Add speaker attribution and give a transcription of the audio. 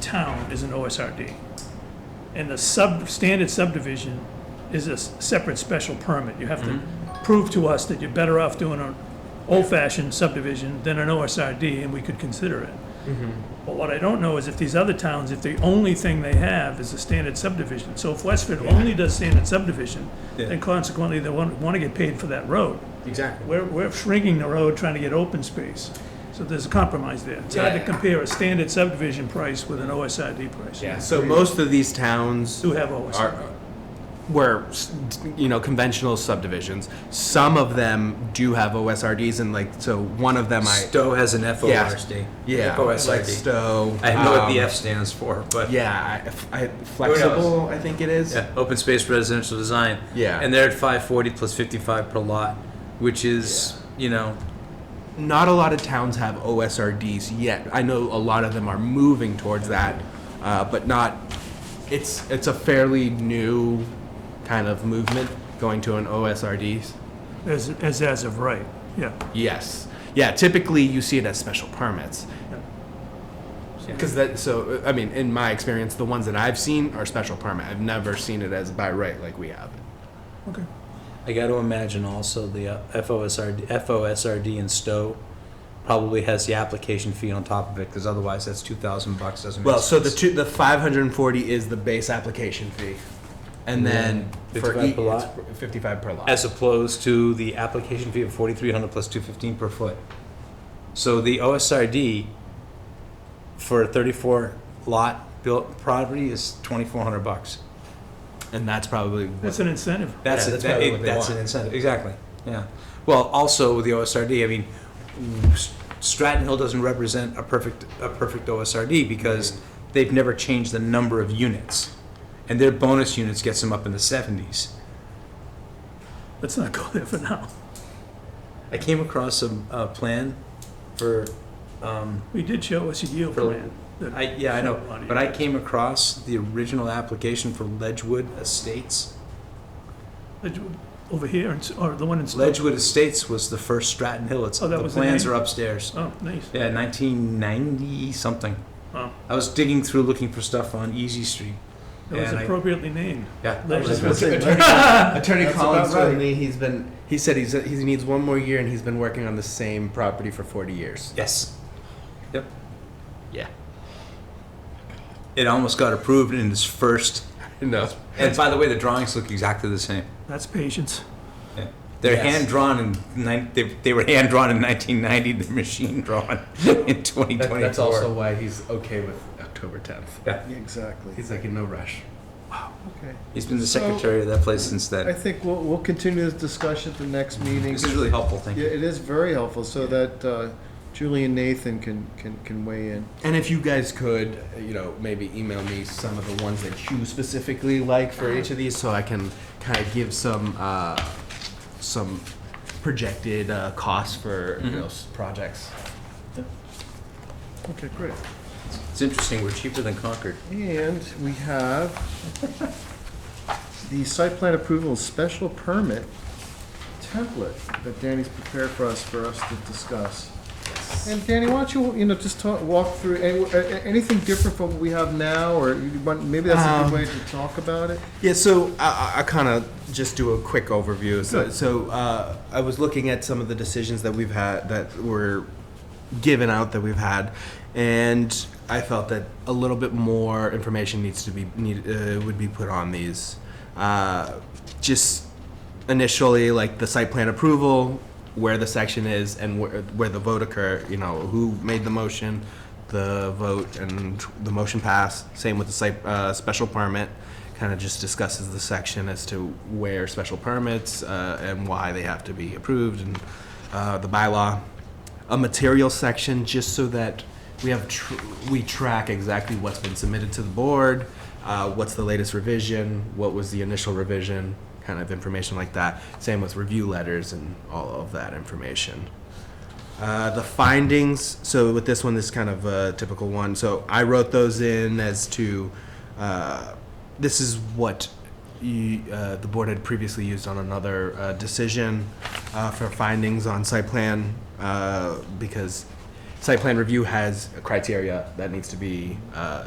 Speaker 1: town is an OSRD. And the sub, standard subdivision is a s- separate special permit. You have to prove to us that you're better off doing an old-fashioned subdivision than an OSRD, and we could consider it. But what I don't know is if these other towns, if the only thing they have is a standard subdivision. So if Westford only does standard subdivision,
Speaker 2: Yeah.
Speaker 1: then consequently, they want, want to get paid for that road.
Speaker 2: Exactly.
Speaker 1: We're, we're shrinking the road, trying to get open space. So there's a compromise there. It's hard to
Speaker 2: Yeah.
Speaker 1: compare a standard subdivision price with an OSID price.
Speaker 2: Yeah. So most of these towns
Speaker 1: Do have OSID.
Speaker 2: are were s- you know conventional subdivisions. Some of them do have OSRDs, and like so one of them I
Speaker 3: Stowe has an FORSD.
Speaker 2: yeah like
Speaker 3: FOSID.
Speaker 2: Stowe.
Speaker 3: I know what
Speaker 2: um,
Speaker 3: the F stands for, but.
Speaker 2: Yeah, I, I- flexible. I think it is.
Speaker 3: Yeah, open space residential design.
Speaker 2: Yeah.
Speaker 3: And they're at five forty plus fifty-five per lot, which is, you know,
Speaker 2: Not a lot of towns have OSRDs yet. I know a lot of them are moving towards that, uh, but not. It's it's a fairly new kind of movement going to an OSRDs.
Speaker 1: As, as, as of right, yeah.
Speaker 2: Yes. Yeah, typically you see it as special permits. Because that, so, uh, I mean, in my experience, the ones that I've seen are special permit. I've never seen it as by right like we have.
Speaker 1: Okay.
Speaker 3: I got to imagine also the uh, FOSRD, FOSRD in Stowe probably has the application fee on top of it because otherwise that's two thousand bucks doesn't.
Speaker 2: Well,
Speaker 3: make
Speaker 2: so the
Speaker 3: sense.
Speaker 2: two, the five hundred and forty is the base application fee, and then
Speaker 3: Yeah.
Speaker 2: for
Speaker 3: 55
Speaker 2: each,
Speaker 3: per lot?
Speaker 2: it's fifty-five per lot.
Speaker 3: as opposed to the application fee of forty-three hundred plus two fifteen per foot. So the OSRD for a thirty-four lot built property is twenty-four hundred bucks.
Speaker 2: and that's probably
Speaker 1: That's an incentive.
Speaker 3: That's,
Speaker 2: Yeah,
Speaker 3: a-
Speaker 2: that's probably
Speaker 3: that-
Speaker 2: what they
Speaker 3: that's an
Speaker 2: want.
Speaker 3: incentive, exactly, yeah. Well, also with the OSRD, I mean, S- Stratton Hill doesn't represent a perfect, a perfect OSRD because they've never changed the number of units. And their bonus units gets them up in the seventies.
Speaker 1: Let's not go there for now.
Speaker 3: I came across a, a plan for, um,
Speaker 1: We did show us a yield
Speaker 3: For-
Speaker 1: plan. that-
Speaker 3: I, yeah, I
Speaker 1: A lot
Speaker 3: know,
Speaker 1: of
Speaker 3: but I
Speaker 1: units.
Speaker 3: came across the original application for Ledgewood Estates.
Speaker 1: Ledgewood Over here, and s- or the one in. Stowe.
Speaker 3: Ledgewood Estates was the first Stratton Hill, it's,
Speaker 1: Oh, that
Speaker 3: the
Speaker 1: was the
Speaker 3: plans
Speaker 1: name?
Speaker 3: are upstairs.
Speaker 1: Oh, nice.
Speaker 3: Yeah, nineteen ninety something.
Speaker 1: Wow.
Speaker 3: I was digging through looking for stuff on Easy Street.
Speaker 1: That was
Speaker 3: and I-
Speaker 1: appropriately named.
Speaker 3: Yeah.
Speaker 1: Ledgewood.
Speaker 2: Attorney
Speaker 4: That's
Speaker 2: Collins
Speaker 4: about right.
Speaker 2: told me he's been. He said he's he needs one more year, and he's been working on the same property for forty years.
Speaker 3: Yes. Yep.
Speaker 2: Yeah.
Speaker 3: It almost got approved in its first.
Speaker 2: No.
Speaker 3: And by the way, the drawings look exactly the same.
Speaker 1: That's patience.
Speaker 3: Yeah. They're
Speaker 2: Yes.
Speaker 3: hand drawn in nine, they, they were hand drawn in 1990. They're machine drawn in 2024.
Speaker 2: That- that's also why he's okay with October tenth.
Speaker 3: Yeah.
Speaker 4: Exactly.
Speaker 2: He's like in no rush.
Speaker 4: Okay.
Speaker 3: He's been the secretary of that place since
Speaker 4: I
Speaker 3: then.
Speaker 4: think we'll, we'll continue this discussion at the next meeting.
Speaker 3: This is really helpful. Thank
Speaker 4: Yeah,
Speaker 3: you.
Speaker 4: it is very helpful so that uh, Julie and Nathan can, can, can weigh in.
Speaker 2: And if you guys could, you know, maybe email me some of the ones that you specifically like for each of these, so I can kind of give some uh, some projected uh, costs for you know, s- projects.
Speaker 4: Okay, great.
Speaker 3: It's interesting. We're cheaper than Concord.
Speaker 4: And we have the site plan approval special permit template that Danny's prepared for us, for us to discuss. And Danny, why don't you, you know, just talk, walk through, any- a- a- anything different from what we have now, or you want, maybe that's a
Speaker 2: Um,
Speaker 4: good way to talk about it?
Speaker 2: Yeah, so I, I- I kind of just do a quick overview. So, so uh, I was looking at some of the decisions that we've had that were given out that we've had, and I felt that a little bit more information needs to be need, uh, would be put on these. Uh, just initially, like the site plan approval, where the section is, and where, where the vote occur. You know, who made the motion, the vote, and the motion passed. Same with the site uh, special permit kind of just discusses the section as to where special permits uh, and why they have to be approved and uh, the bylaw. A material section just so that we have tr- we track exactly what's been submitted to the board, uh, what's the latest revision, what was the initial revision, kind of information like that. Same with review letters and all of that information. Uh, the findings. So with this one, this is kind of a typical one. So I wrote those in as to uh, this is what you, uh, the board had previously used on another uh, decision uh, for findings on site plan uh, because site plan review has criteria that needs to be uh,